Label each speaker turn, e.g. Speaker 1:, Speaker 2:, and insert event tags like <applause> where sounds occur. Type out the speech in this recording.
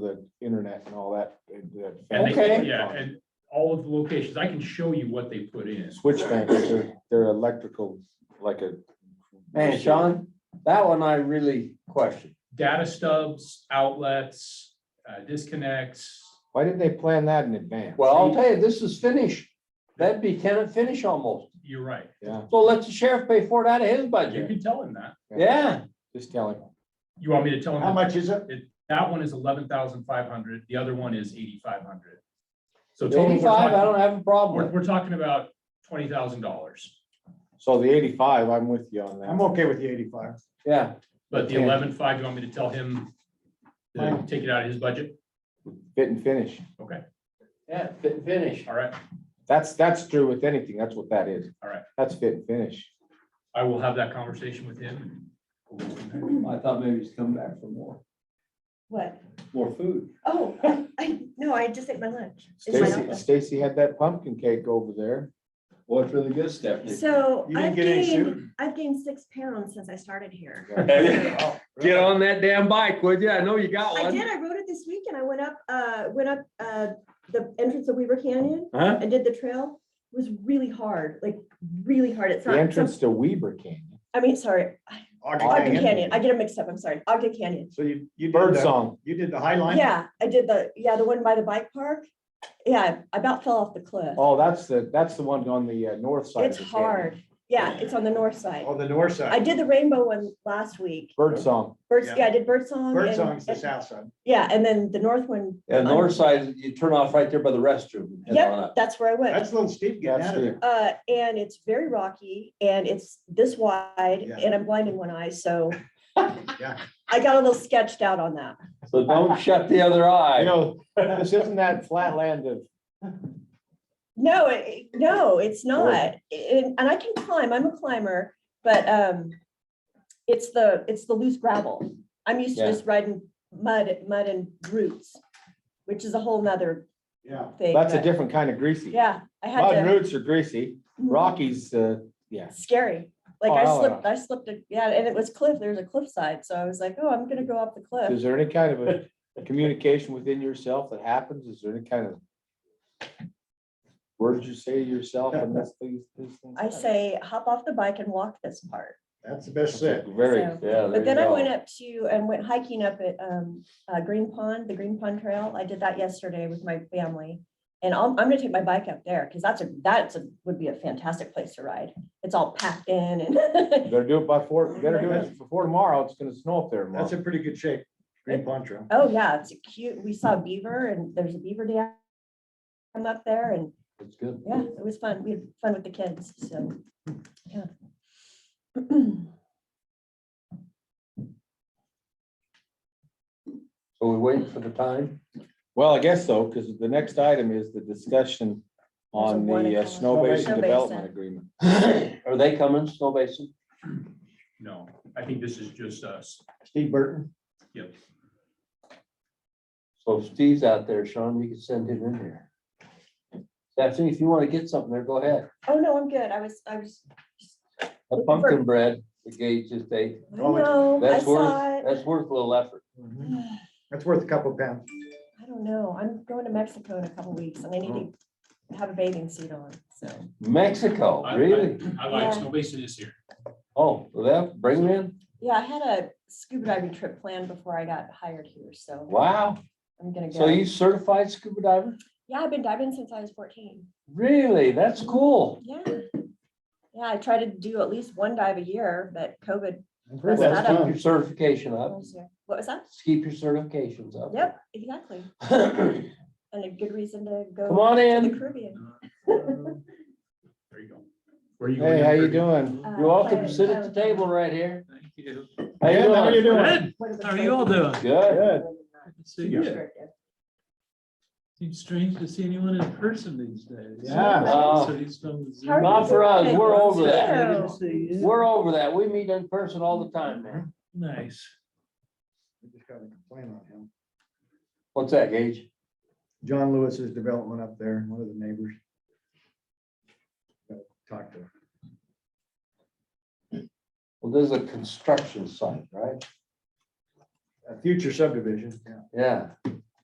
Speaker 1: the internet and all that, that.
Speaker 2: And they-
Speaker 1: Okay.
Speaker 2: Yeah, and all of the locations, I can show you what they put in.
Speaker 1: Switch banks, they're, they're electrical, like a.
Speaker 3: Man, Sean, that one I really question.
Speaker 2: Data stubs, outlets, uh, disconnects.
Speaker 1: Why didn't they plan that in advance?
Speaker 3: Well, I'll tell you, this is finish. That'd be tenant finish almost.
Speaker 2: You're right.
Speaker 1: Yeah,
Speaker 3: So let the sheriff pay for it out of his
Speaker 2: You
Speaker 3: budget.
Speaker 2: can tell him that.
Speaker 3: Yeah,
Speaker 1: just tell him.
Speaker 2: You want me to tell him?
Speaker 4: How
Speaker 2: that
Speaker 4: much is it?
Speaker 2: That one is eleven thousand five hundred. The other one is eighty-five hundred. So total, we're
Speaker 3: eighty-five, I
Speaker 2: talking,
Speaker 3: don't have a
Speaker 2: we're,
Speaker 3: problem with.
Speaker 2: we're talking about twenty thousand dollars.
Speaker 1: So the eighty-five, I'm with you on
Speaker 4: I'm
Speaker 1: that.
Speaker 4: okay with the eighty-five.
Speaker 3: Yeah,
Speaker 2: But the
Speaker 1: Okay.
Speaker 2: eleven five, you want me to tell him to
Speaker 4: Fine.
Speaker 2: take it out of his budget?
Speaker 1: Fit and finish.
Speaker 2: Okay,
Speaker 3: yeah, fit and finish.
Speaker 2: all right.
Speaker 1: That's, that's true with anything. That's what that is.
Speaker 2: All right.
Speaker 1: That's fit and finish.
Speaker 2: I will have that conversation with him. and we'll go from there.
Speaker 3: I thought maybe he's come back for more,
Speaker 5: What?
Speaker 3: more food.
Speaker 5: Oh, <laughs> I- I, no, I just ate my lunch. It's my
Speaker 1: Stacy, Stacy had that pumpkin cake over there.
Speaker 3: Well, it's really good, Stephanie.
Speaker 5: So
Speaker 4: You didn't
Speaker 5: I've
Speaker 4: get any
Speaker 5: gained,
Speaker 4: soup?
Speaker 5: I've gained six pounds since I started here.
Speaker 3: <laughs> Get on that damn bike, would you? I know you got
Speaker 5: I
Speaker 3: one.
Speaker 5: did, I rode it this week and I went up, uh, went up, uh, the entrance of Weaver Canyon
Speaker 3: Huh?
Speaker 5: and did the trail. It Was really hard, like really hard. It's
Speaker 1: The
Speaker 5: not, some-
Speaker 1: entrance to Weber Canyon.
Speaker 5: I mean, sorry, Ogden
Speaker 1: Canyon.
Speaker 5: Canyon. I get it mixed up. I'm sorry. Ogden Canyon.
Speaker 4: So you, you did
Speaker 1: Bird
Speaker 4: the,
Speaker 1: song.
Speaker 4: you did the High Line?
Speaker 5: Yeah, I did the, yeah, the one by the bike park. Yeah, I about fell off the cliff.
Speaker 1: Oh, that's the, that's the one on the uh, north side. of
Speaker 5: It's
Speaker 1: the canyon.
Speaker 5: hard. Yeah, it's on the north side.
Speaker 4: On the north
Speaker 5: I
Speaker 4: side.
Speaker 5: did the rainbow one last week.
Speaker 1: Bird song.
Speaker 5: Birds,
Speaker 4: Yeah.
Speaker 5: yeah, I did bird song.
Speaker 4: Bird
Speaker 5: and-
Speaker 4: Song's the
Speaker 5: and-
Speaker 4: south side.
Speaker 5: Yeah, and then the north one.
Speaker 3: Yeah, north side, you turn off right there by the restroom. and head on
Speaker 5: Yep,
Speaker 3: up.
Speaker 5: that's where I went.
Speaker 4: That's a little steep getting
Speaker 1: That's
Speaker 4: out of there.
Speaker 1: the,
Speaker 5: Uh, and it's very rocky and it's this wide
Speaker 4: Yeah.
Speaker 5: and I'm blind in one eye, so.
Speaker 4: <laughs> Yeah.
Speaker 5: I got a little sketched out on that.
Speaker 3: So don't
Speaker 5: <laughs>
Speaker 3: shut the other
Speaker 1: you
Speaker 3: eye.
Speaker 1: know, this isn't that flat land of,
Speaker 5: No, it- no, it's not. And, and I can climb, I'm a climber, but, um, it's the, it's the loose gravel. I'm used to
Speaker 3: Yeah.
Speaker 5: just riding mud, mud and roots, which is a whole nother
Speaker 4: Yeah.
Speaker 5: thing.
Speaker 1: that's a
Speaker 5: but-
Speaker 1: different kind of greasy.
Speaker 5: Yeah, I had
Speaker 1: Mud
Speaker 5: to. mm,
Speaker 1: roots are greasy. Rockies, uh,
Speaker 5: <laughs>
Speaker 1: yeah.
Speaker 5: scary. Like
Speaker 1: Oh,
Speaker 5: I
Speaker 1: hell
Speaker 5: slipped, I slipped, a- yeah, and it was cliff, there's a cliffside, so I was like, oh, I'm gonna go up the cliff.
Speaker 1: Is there any kind of a communication within yourself that happens? Is there any kind of words you say to yourself and that's these, these things?
Speaker 5: I say, hop off the bike and walk this part.
Speaker 4: That's the best
Speaker 1: That's a
Speaker 4: set.
Speaker 1: Very,
Speaker 5: So-
Speaker 3: Yeah.
Speaker 5: But then I went up to and went hiking up at um uh Green Pond, the Green Pond Trail. I did that yesterday with my family. And I'm I'm gonna take my bike up there because that's a, that's a, would be a fantastic place to ride. It's all packed in and <laughs>
Speaker 1: better do it by four, better do it before tomorrow. It's gonna snow up there tomorrow.
Speaker 4: That's a pretty good shape. Green Pond Trail.
Speaker 5: Oh, yeah, it's a cute. We saw beaver and there's a beaver dam come up there and
Speaker 3: It's good.
Speaker 5: yeah, it was fun. We had fun with the kids, so, yeah. <clears throat>
Speaker 3: So we wait for the <coughs> time.
Speaker 1: Well, I guess so, because the next item is the discussion on
Speaker 5: one
Speaker 1: the uh,
Speaker 5: across-
Speaker 1: Snow
Speaker 4: Snow
Speaker 1: Basin
Speaker 5: Basin.
Speaker 1: Development Agreement.
Speaker 3: Are they coming, Snow Basin?
Speaker 2: No, I think this is just us.
Speaker 4: Steve Burton.
Speaker 2: Yep.
Speaker 3: So if Steve's out there, Sean, you can send him in here. Stephanie, if you want to get something there, go ahead.
Speaker 5: Oh, no, I'm good. I was, I was,
Speaker 3: A pumpkin bread, the gauge just ate.
Speaker 5: I
Speaker 4: Oh, it-
Speaker 5: know, I
Speaker 3: That's
Speaker 5: saw
Speaker 3: worth,
Speaker 5: it.
Speaker 3: that's worth a little effort.
Speaker 4: Mhm.
Speaker 5: I
Speaker 4: That's worth a couple pounds.
Speaker 5: don't know. I'm going to Mexico in a couple weeks and I need
Speaker 3: Oh.
Speaker 5: to have a bathing suit on, so.
Speaker 3: Mexico,
Speaker 2: I- I-
Speaker 3: Oh, really?
Speaker 2: I like
Speaker 5: Yeah.
Speaker 2: Snow Basin is here.
Speaker 3: Oh, well, that, bring them in?
Speaker 5: Yeah, I had a scuba diving trip planned before I got hired here, so
Speaker 3: Wow.
Speaker 5: I'm gonna
Speaker 3: So
Speaker 5: go.
Speaker 3: you certified scuba diver?
Speaker 5: Yeah, I've been diving since I was fourteen.
Speaker 3: Really? That's cool.
Speaker 5: Yeah. Yeah, I try to do at least one dive a year, but COVID.
Speaker 4: I've heard that's
Speaker 5: That's
Speaker 3: Let's
Speaker 5: not
Speaker 3: keep
Speaker 4: fun.
Speaker 3: your certification up.
Speaker 5: was- What was that?
Speaker 3: Let's Keep your certifications up. <laughs>
Speaker 5: Yep, exactly.
Speaker 3: Come
Speaker 5: And a good reason to go.
Speaker 3: on
Speaker 5: to
Speaker 3: in.
Speaker 5: The Caribbean.
Speaker 2: There you go. Where you going?
Speaker 1: Hey, how you doing?
Speaker 5: Uh,
Speaker 3: You're welcome
Speaker 5: play-
Speaker 3: to sit at the
Speaker 5: play-
Speaker 3: table right here.
Speaker 2: Thank you.
Speaker 3: How you
Speaker 4: Yeah, how you
Speaker 3: doing?
Speaker 4: doing?
Speaker 2: Good.
Speaker 5: what is it
Speaker 2: How are you all
Speaker 5: called?
Speaker 2: doing?
Speaker 3: Good.
Speaker 4: Good.
Speaker 6: See you.
Speaker 5: Restrictive.
Speaker 6: Seems strange to see anyone in person these days.
Speaker 4: Yeah.
Speaker 3: Oh.
Speaker 6: So he's from
Speaker 5: How are
Speaker 6: Zoom.
Speaker 3: Not for us. We're over that.
Speaker 5: Yeah.
Speaker 3: We're over that. We meet in person all the time, man.
Speaker 6: Nice.
Speaker 4: We just got a complaint on him.
Speaker 3: What's that, Gage?
Speaker 4: John Lewis's development up there, one of the neighbors. Gotta Talk to him.
Speaker 3: Well, there's a construction site, right?
Speaker 4: a future subdivision. Yeah.
Speaker 3: Yeah.